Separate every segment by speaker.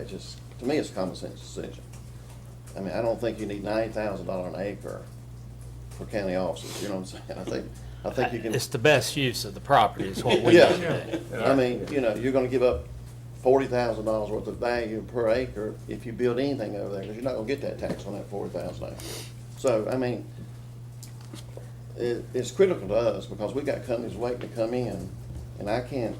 Speaker 1: It's just, to me, it's a common sense decision. I mean, I don't think you need ninety thousand dollar an acre for county offices, you know what I'm saying? I think, I think you can.
Speaker 2: Uh, It's the best use of the property is what we need
Speaker 1: Yeah,
Speaker 2: to do.
Speaker 1: I mean, you know, you're gonna give up forty thousand dollars worth of value per acre if you build anything over there, because you're not gonna get that tax on that forty thousand acres. So, I mean, it, it's critical to us, because we got companies waiting to come in, and I can't,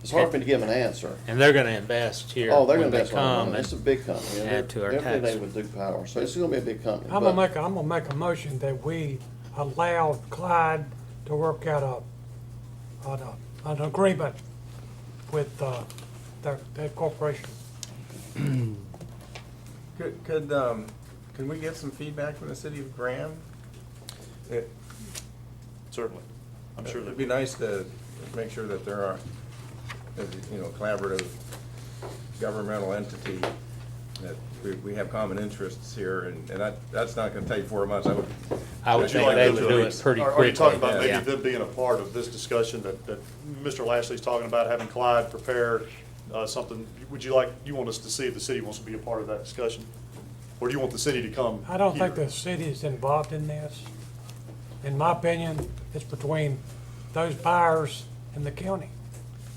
Speaker 1: it's hard for me to give an answer.
Speaker 2: And they're gonna invest here
Speaker 1: Oh, they're
Speaker 2: when
Speaker 1: gonna
Speaker 2: they
Speaker 1: invest a lot of
Speaker 2: come.
Speaker 1: money, it's a
Speaker 2: and-
Speaker 1: big company. and
Speaker 2: add to our
Speaker 1: they're
Speaker 2: tax.
Speaker 1: affiliated with Duke Power, so it's gonna be a big company.
Speaker 3: I'm
Speaker 1: but-
Speaker 3: gonna make, a- I'm gonna make a motion that we allow Clyde to work out a, an, uh, an agreement with, uh, that, that corporation.
Speaker 4: Could, could, um, can we get some feedback from the city of Graham? It,
Speaker 5: Certainly. I'm sure
Speaker 4: it'd
Speaker 5: that,
Speaker 4: be nice to make sure that there are, that, you know, collaborative governmental entity, that we, we have common interests here, and, and that, that's not gonna take four months, I would.
Speaker 2: I would
Speaker 4: Would you
Speaker 2: think
Speaker 4: like
Speaker 2: they
Speaker 4: them
Speaker 2: would
Speaker 4: to
Speaker 2: do it
Speaker 4: release-
Speaker 2: pretty
Speaker 5: are are
Speaker 2: quickly.
Speaker 5: you talking about
Speaker 4: quickly,
Speaker 2: yeah.
Speaker 5: maybe them being a part of this discussion that, that Mr. Lashley's talking about, having Clyde prepare uh, something? Would you like, you want us to see if the city wants to be a part of that discussion? Or do you want the city to come?
Speaker 3: I don't think
Speaker 5: here?
Speaker 3: the city is involved in this. In my opinion, it's between those buyers and the county.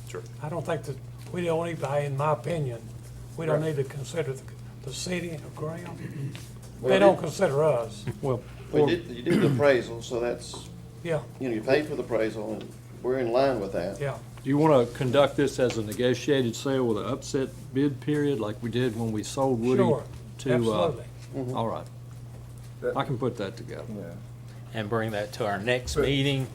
Speaker 5: Sure.
Speaker 3: I don't think that, we don't even, I- in my opinion, we don't need to consider the, the city of Graham. They don't consider us,
Speaker 6: Well,
Speaker 1: We did, you did the appraisal, so that's,
Speaker 3: yeah,
Speaker 1: you know, you paid for the appraisal, and we're in line with that.
Speaker 3: yeah.
Speaker 6: do you want to conduct this as a negotiated sale with an upset bid period like we did when we sold Woody?
Speaker 3: Sure,
Speaker 6: to, uh,
Speaker 3: absolutely.
Speaker 1: Mm-hmm.
Speaker 6: All right, I can put that together.
Speaker 4: Yeah.
Speaker 2: And bring that to our next
Speaker 4: But-
Speaker 2: meeting.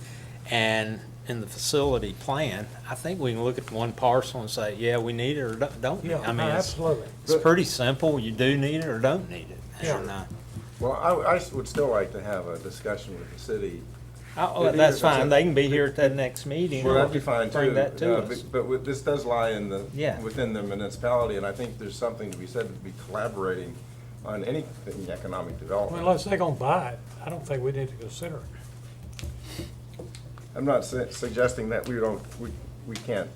Speaker 2: And in the facility plan, I think we can look at one parcel and say, yeah, we need it or don't- don't. need it.
Speaker 3: Yeah,
Speaker 2: I mean, it's,
Speaker 3: absolutely.
Speaker 2: it's pretty simple. You do need it or don't need it.
Speaker 3: Yeah.
Speaker 2: And, uh,
Speaker 4: Well, I, I would still like to have a discussion with the city.
Speaker 2: I-
Speaker 4: Yeah,
Speaker 2: oh, that's
Speaker 4: yeah, that's
Speaker 2: fine.
Speaker 4: it.
Speaker 2: They can be here at that next meeting.
Speaker 4: Well, that'd be fine too.
Speaker 2: Bring that to
Speaker 4: uh,
Speaker 2: us.
Speaker 4: But with- this does lie in the,
Speaker 2: Yeah.
Speaker 4: within the municipality, and I think there's something to be said to be collaborating on anything economic
Speaker 3: Well,
Speaker 4: development.
Speaker 3: Unless they're gonna buy it, I don't think we need to consider it.
Speaker 4: I'm not su- suggesting that we don't, we, we can't,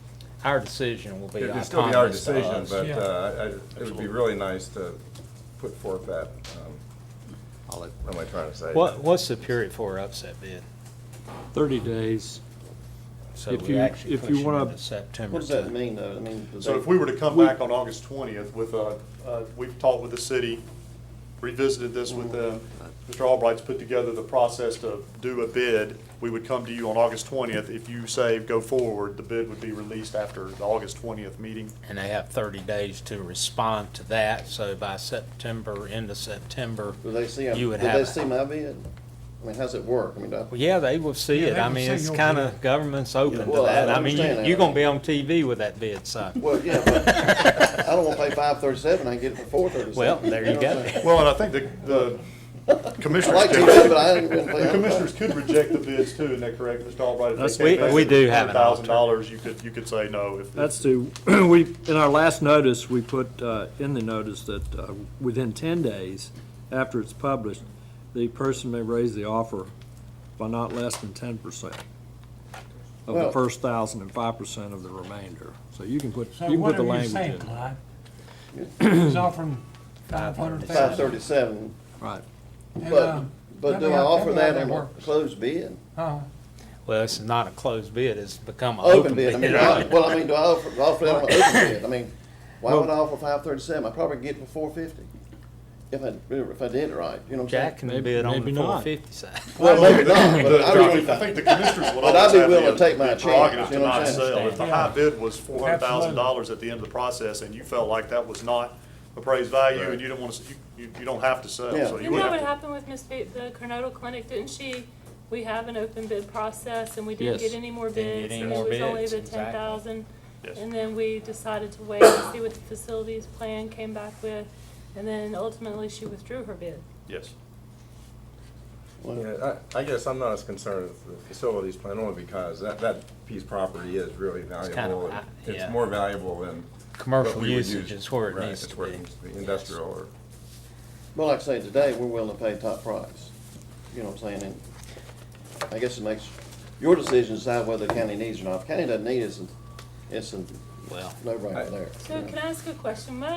Speaker 2: Our decision will be
Speaker 4: it'd still be our
Speaker 2: autonomous to
Speaker 4: decision,
Speaker 2: us.
Speaker 4: but
Speaker 3: Yeah.
Speaker 4: uh, I- I- it would be really nice to put forth that, um,
Speaker 6: I'll let-
Speaker 4: what am I trying to say?
Speaker 2: What, what's the period for upset bid?
Speaker 6: Thirty days,
Speaker 2: So
Speaker 6: If
Speaker 2: we
Speaker 6: you-
Speaker 2: actually
Speaker 6: if
Speaker 2: push
Speaker 6: you
Speaker 2: it
Speaker 6: wanna-
Speaker 2: into September
Speaker 1: What does that
Speaker 2: to.
Speaker 1: mean, though? I mean, does
Speaker 5: So
Speaker 1: that-
Speaker 5: if we were to come back on August 20th with, uh, uh, we've talked with the city, revisited this with them, Mr. Albright's put together the process to do a bid, we would come to you on August 20th. If you say go forward, the bid would be released after the August 20th meeting.
Speaker 2: And they have thirty days to respond to that, so by September, end of September,
Speaker 1: Do they see,
Speaker 2: you
Speaker 1: do
Speaker 2: would
Speaker 1: they
Speaker 2: have.
Speaker 1: see
Speaker 2: it.
Speaker 1: my bid? I mean, how's it work? I mean, do I-
Speaker 2: Well, yeah, they will see
Speaker 3: Yeah,
Speaker 2: it.
Speaker 3: they
Speaker 2: I
Speaker 3: will
Speaker 2: mean,
Speaker 3: see
Speaker 2: it's
Speaker 3: your
Speaker 2: kinda,
Speaker 3: bid.
Speaker 2: government's open to
Speaker 1: Well, I
Speaker 2: that. I mean,
Speaker 1: understand
Speaker 2: you-
Speaker 1: that.
Speaker 2: you're gonna be on TV with that bid, so.
Speaker 1: well, yeah, but I don't wanna pay five thirty-seven, I can get it for four thirty-seven.
Speaker 2: Well, there you go.
Speaker 5: Well, and I think the, the
Speaker 1: I
Speaker 5: commissioners
Speaker 1: like to,
Speaker 5: could,
Speaker 1: but I ain't gonna pay
Speaker 5: the
Speaker 1: them.
Speaker 5: commissioners could reject the bids too, isn't that correct, Mr. Albright?
Speaker 6: That's-
Speaker 2: we- we do have an
Speaker 5: Thousand dollars, you could, you could say no if.
Speaker 6: that's to, we, in our last notice, we put uh, in the notice that uh, within ten days after it's published, the person may raise the offer by not less than ten percent of the
Speaker 1: Well-
Speaker 6: first thousand and five percent of the remainder. So you can put, you
Speaker 3: So
Speaker 6: can put
Speaker 3: what
Speaker 6: the
Speaker 3: are you
Speaker 6: language in.
Speaker 3: saying, Clyde? He's offering five hundred
Speaker 1: Five
Speaker 3: thousand. uh,
Speaker 1: thirty-seven,
Speaker 6: Right.
Speaker 1: but, but do I offer that in a closed bid?
Speaker 3: uh-huh.
Speaker 2: Well, it's not a closed bid, it's become an
Speaker 1: Open bid, I mean, do I-
Speaker 2: right?
Speaker 1: well, I mean, do I offer, offer that on an open bid? I mean, why would I offer five thirty-seven? I probably get it for four fifty, if I, if I did it right, you know what I'm
Speaker 2: Jack
Speaker 1: saying?
Speaker 2: can
Speaker 6: Maybe-
Speaker 2: bid on
Speaker 6: maybe
Speaker 2: the
Speaker 6: not.
Speaker 2: four fifty side.
Speaker 1: Well, maybe not, but
Speaker 5: The-
Speaker 1: I
Speaker 5: the-
Speaker 1: mean,
Speaker 5: I think the commissioners would
Speaker 1: But I'd
Speaker 5: always
Speaker 1: be
Speaker 5: have
Speaker 1: willing to
Speaker 5: the
Speaker 1: take my
Speaker 5: the
Speaker 1: chance, you
Speaker 5: prerogative to
Speaker 1: know what
Speaker 5: not
Speaker 1: I'm saying?
Speaker 5: sell. If the high bid was four hundred thousand dollars
Speaker 3: Absolutely.
Speaker 5: at the end of the process and you felt like that was not appraised value and you don't want to, you, you don't have to sell,
Speaker 1: Yeah.
Speaker 5: so you
Speaker 7: You
Speaker 5: would
Speaker 7: know
Speaker 5: have
Speaker 7: what
Speaker 5: to.
Speaker 7: happened with Miss, Ba- the Cornado Clinic, didn't she, we have an open bid process and we didn't
Speaker 6: Yes.
Speaker 7: get any more
Speaker 2: Didn't get
Speaker 7: bids.
Speaker 2: any
Speaker 7: and
Speaker 2: more
Speaker 7: It was only
Speaker 2: bids,
Speaker 7: the
Speaker 2: exactly.
Speaker 7: ten thousand.
Speaker 5: Yes.
Speaker 7: And then we decided to wait and see what the facilities plan came back with. And then ultimately she withdrew her bid.
Speaker 5: Yes.
Speaker 4: Yeah, I, I guess I'm not as concerned with the facilities plan only because that, that piece of property is really
Speaker 2: of
Speaker 4: valuable.
Speaker 2: high, yeah.
Speaker 4: It's more valuable than.
Speaker 2: Commercial
Speaker 4: what we would
Speaker 2: usage
Speaker 4: use.
Speaker 2: is where it
Speaker 4: Right,
Speaker 2: needs
Speaker 4: it's
Speaker 2: to
Speaker 4: where it
Speaker 2: be.
Speaker 4: needs Industrial or.
Speaker 1: Well, like I say, today, we're willing to pay top price, you know what I'm saying, and I guess it makes, your decision to decide whether the county needs it or not. If the county doesn't need it, it's, a- it's a
Speaker 2: Well.
Speaker 1: no-brainer there.
Speaker 7: So can I ask a question? What